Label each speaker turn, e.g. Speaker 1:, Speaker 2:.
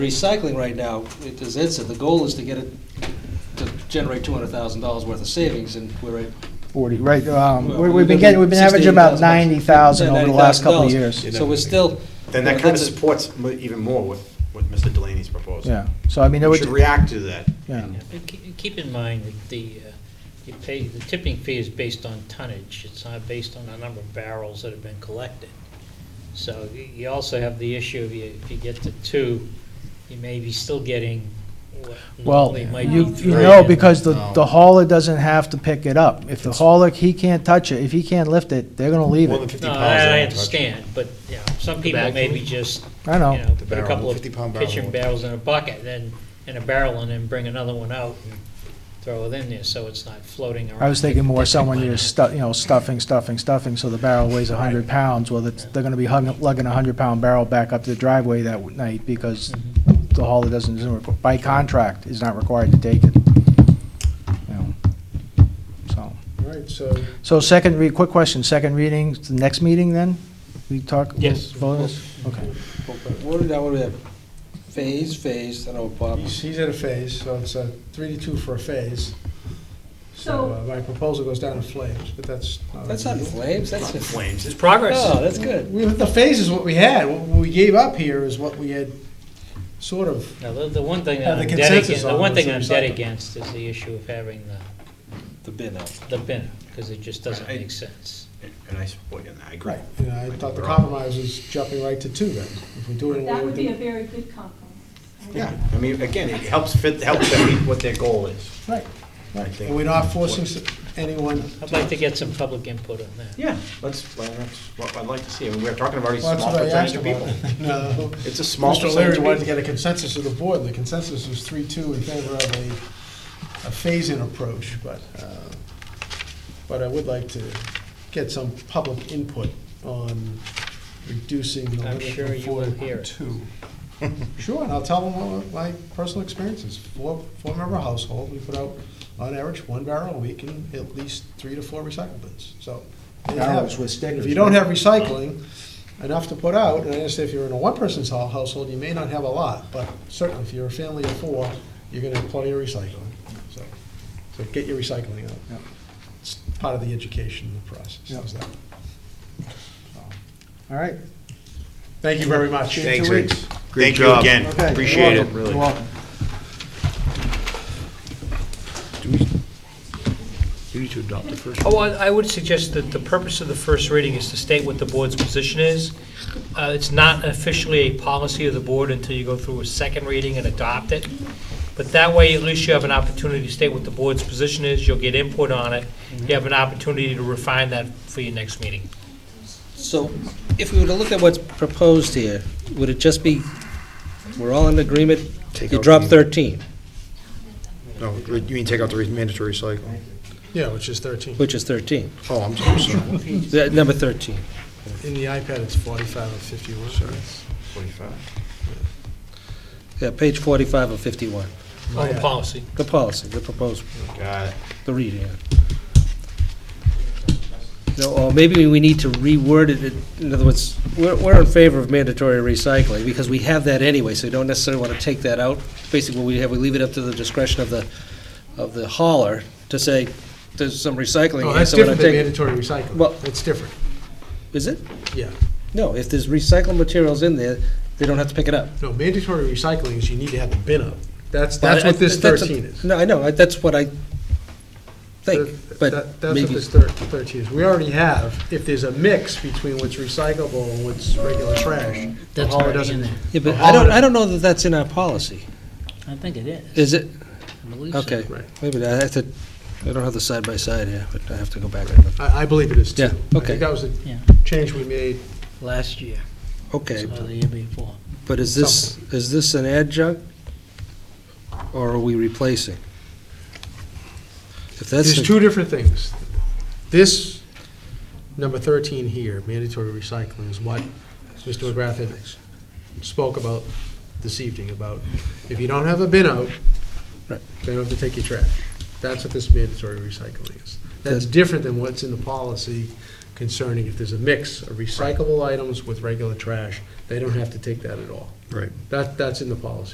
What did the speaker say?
Speaker 1: recycling right now, it- as Ed said, the goal is to get it, to generate two hundred thousand dollars worth of savings, and we're at.
Speaker 2: Forty, right, um,
Speaker 1: well,
Speaker 2: we- we've been getting, we've been averaging about ninety thousand over the last couple of
Speaker 1: $90,000.
Speaker 2: years.
Speaker 1: So we're still. you
Speaker 3: Then that
Speaker 1: know,
Speaker 3: kind of
Speaker 1: that's a-
Speaker 3: supports mo- even more what, what Mr. Delaney's proposing.
Speaker 2: Yeah, so I mean, it
Speaker 3: We should
Speaker 2: would,
Speaker 3: react to that.
Speaker 2: yeah,
Speaker 4: And ke- and Keep in mind that the, uh, you pay, the tipping fee is based on tonnage. It's not based on the number of barrels that have been collected. So y- you also have the issue of you- if you get to two, you may be still getting what
Speaker 2: well,
Speaker 4: normally might
Speaker 2: you,
Speaker 4: be
Speaker 2: you
Speaker 4: three.
Speaker 2: know,
Speaker 4: and-
Speaker 2: because the,
Speaker 3: No.
Speaker 2: the hauler doesn't have to pick it up. If the hauler, he can't touch it, if he can't lift it, they're gonna leave
Speaker 3: More than
Speaker 2: it.
Speaker 3: 50
Speaker 4: No,
Speaker 3: pounds.
Speaker 4: I I
Speaker 3: in a truck.
Speaker 4: understand, but, you know, some people
Speaker 5: bag
Speaker 4: maybe
Speaker 5: full?
Speaker 4: just,
Speaker 2: I
Speaker 4: you
Speaker 2: know,
Speaker 4: know,
Speaker 5: The
Speaker 4: put a
Speaker 5: barrel,
Speaker 4: couple of
Speaker 5: 50-pound barrel.
Speaker 4: pitching barrels in a bucket, then, in a barrel, and then bring another one out and throw it in there, so it's not floating around.
Speaker 2: I was thinking more
Speaker 4: like-
Speaker 2: someone
Speaker 4: like-
Speaker 2: you're stu, you know, stuffing, stuffing, stuffing, so the barrel weighs a hundred pounds, well, it's, they're gonna be hung, lugging a hundred pound barrel back up to the driveway that night because the hauler doesn't, isn't requ- by contract, is not required to take it. You know, So.
Speaker 6: All right, so
Speaker 2: So second, re, quick question, second reading, the next meeting then? We talk?
Speaker 4: Yes.
Speaker 2: vote on this? Okay.
Speaker 1: What do we what do we have? Phase, phase, I know Bob.
Speaker 6: he's, he's at a phase, so it's a three to two for a phase. So uh, my proposal goes down in flames, but that's.
Speaker 1: That's not flames, that's just.
Speaker 3: Flames, it's
Speaker 4: Progress.
Speaker 1: No, that's good.
Speaker 6: We- The phase is what we had. What we gave up here is what we had sort of,
Speaker 4: Now, the, the one thing that
Speaker 6: Uh, the
Speaker 4: I'm dead
Speaker 6: consensus
Speaker 4: against, the
Speaker 6: on
Speaker 4: one
Speaker 6: was
Speaker 4: thing
Speaker 6: the
Speaker 4: I'm dead
Speaker 6: recycling.
Speaker 4: against is the issue of having the,
Speaker 1: The bin out.
Speaker 4: the bin, because it just doesn't
Speaker 3: Right.
Speaker 4: make sense.
Speaker 3: And I support you, and I agree.
Speaker 6: right, you know, I thought the compromise was jumping right to two then. If we do it.
Speaker 7: That would be a very good compromise.
Speaker 3: Yeah, I mean, again, it helps fit, helps them meet what their goal is.
Speaker 6: Right,
Speaker 3: I
Speaker 6: right.
Speaker 3: think-
Speaker 6: And we're not forcing s- anyone.
Speaker 4: I'd like to get some public input on that.
Speaker 3: Yeah, let's, well, that's what I'd like to see. I mean, we're talking about already
Speaker 6: Well, that's
Speaker 3: small
Speaker 6: what I asked
Speaker 3: percentage of
Speaker 6: about.
Speaker 3: people.
Speaker 6: No.
Speaker 3: It's a small
Speaker 6: Mr. O'Leary
Speaker 3: percentage of
Speaker 6: wanted to
Speaker 3: people.
Speaker 6: get a consensus of the board, and the consensus was three-two in favor of a, a phase-in approach, but, uh, but I would like to get some public input on reducing the
Speaker 4: I'm
Speaker 6: limit
Speaker 4: sure
Speaker 6: from
Speaker 4: you
Speaker 6: four
Speaker 4: will hear
Speaker 6: to
Speaker 4: it.
Speaker 6: two. Sure, and I'll tell them what my personal experience is. Four, four-member household, we put out on average one barrel a week and at least three to four recycle bins, so. they have-
Speaker 2: Barrels with stickers,
Speaker 6: If you don't
Speaker 2: right?
Speaker 6: have recycling, enough to put out, and I understand if you're in a one-person hou- household, you may not have a lot, but certainly if you're a family of four, you're gonna have plenty of recycling, so, so get your recycling
Speaker 2: Yeah.
Speaker 6: out. It's part of the education in the process,
Speaker 2: Yeah.
Speaker 6: is that.
Speaker 2: All right.
Speaker 6: Thank you very much.
Speaker 3: Thanks,
Speaker 2: Two
Speaker 3: Rich.
Speaker 2: weeks.
Speaker 3: Thank you again.
Speaker 2: Okay, you're
Speaker 3: Appreciate it,
Speaker 2: welcome,
Speaker 3: really.
Speaker 2: You're welcome.
Speaker 5: You need to adopt the first.
Speaker 8: Oh, I I would suggest that the purpose of the first reading is to state what the board's position is. Uh, It's not officially a policy of the board until you go through a second reading and adopt it. But that way, at least you have an opportunity to state what the board's position is, you'll get input on it,
Speaker 4: Mm-hmm.
Speaker 8: you have an opportunity to refine that for your next meeting.
Speaker 1: So if we were to look at what's proposed here, would it just be, we're all in agreement,
Speaker 5: Take
Speaker 1: you
Speaker 5: out
Speaker 1: drop
Speaker 5: the-
Speaker 1: 13,
Speaker 3: Oh,
Speaker 5: No, you mean take out the mandatory recycling?
Speaker 6: Yeah, which is thirteen.
Speaker 1: which is 13,
Speaker 5: Oh, I'm so sorry.
Speaker 1: Th- number 13.
Speaker 6: In the iPad, it's forty-five and fifty-one.
Speaker 3: Forty-five.
Speaker 1: Yeah, page 45 of 51,
Speaker 6: Oh,
Speaker 8: On the policy.
Speaker 1: the policy, the proposed,
Speaker 3: Got it.
Speaker 1: the reading. No, Or maybe we need to reword it, in other words, we're we're in favor of mandatory recycling, because we have that anyway, so we don't necessarily want to take that out. Basically, what we have, we leave it up to the discretion of the, of the hauler to say, there's some recycling
Speaker 6: Oh,
Speaker 1: here,
Speaker 6: that's
Speaker 1: so we're
Speaker 6: different
Speaker 1: not
Speaker 6: than
Speaker 1: taking.
Speaker 6: mandatory recycling.
Speaker 1: Well-
Speaker 6: That's different,
Speaker 1: Is it?
Speaker 6: yeah.
Speaker 1: No, if there's recycled materials in there, they don't have to pick it up.
Speaker 6: No, mandatory recycling is you need to have the bin up. That's, that's what this
Speaker 1: That's a-
Speaker 6: thirteen is.
Speaker 1: No, I know, I- that's what I think,
Speaker 6: That-
Speaker 1: but
Speaker 6: that- That's what
Speaker 1: maybe,
Speaker 6: this thir- thirteen is. We already have, if there's a mix between what's recyclable and what's regular trash, the
Speaker 4: That's
Speaker 6: hauler
Speaker 4: already
Speaker 6: doesn't.
Speaker 4: in there.
Speaker 1: yeah, but
Speaker 6: the
Speaker 1: I don't,
Speaker 6: hauler-
Speaker 1: I don't know that that's in our policy.
Speaker 4: I think it is.
Speaker 1: Is it?
Speaker 4: I believe so.
Speaker 1: Okay,
Speaker 6: Right.
Speaker 1: maybe I have to, I don't have the side by side here, but I have to go back and look.
Speaker 6: I, I believe it is too.
Speaker 1: Yeah,
Speaker 6: I
Speaker 1: okay.
Speaker 6: think that was the
Speaker 4: Yeah,
Speaker 6: change we made.
Speaker 4: last year,
Speaker 1: Okay,
Speaker 4: or the year before.
Speaker 1: but is this, is this an adjunct? Or are we replacing? If that's,
Speaker 6: There's
Speaker 1: the-
Speaker 6: two different things. This, number thirteen here, mandatory recycling, is what Mr. McGrath had spoke about this evening, about if you don't have a bin out,
Speaker 1: Right.
Speaker 6: they don't have to take your trash. That's what this mandatory recycling is. That's different than what's in the policy concerning if there's a mix of recyclable items with regular trash, they don't have to take that at all.
Speaker 5: Right.
Speaker 6: That, that's in the policy.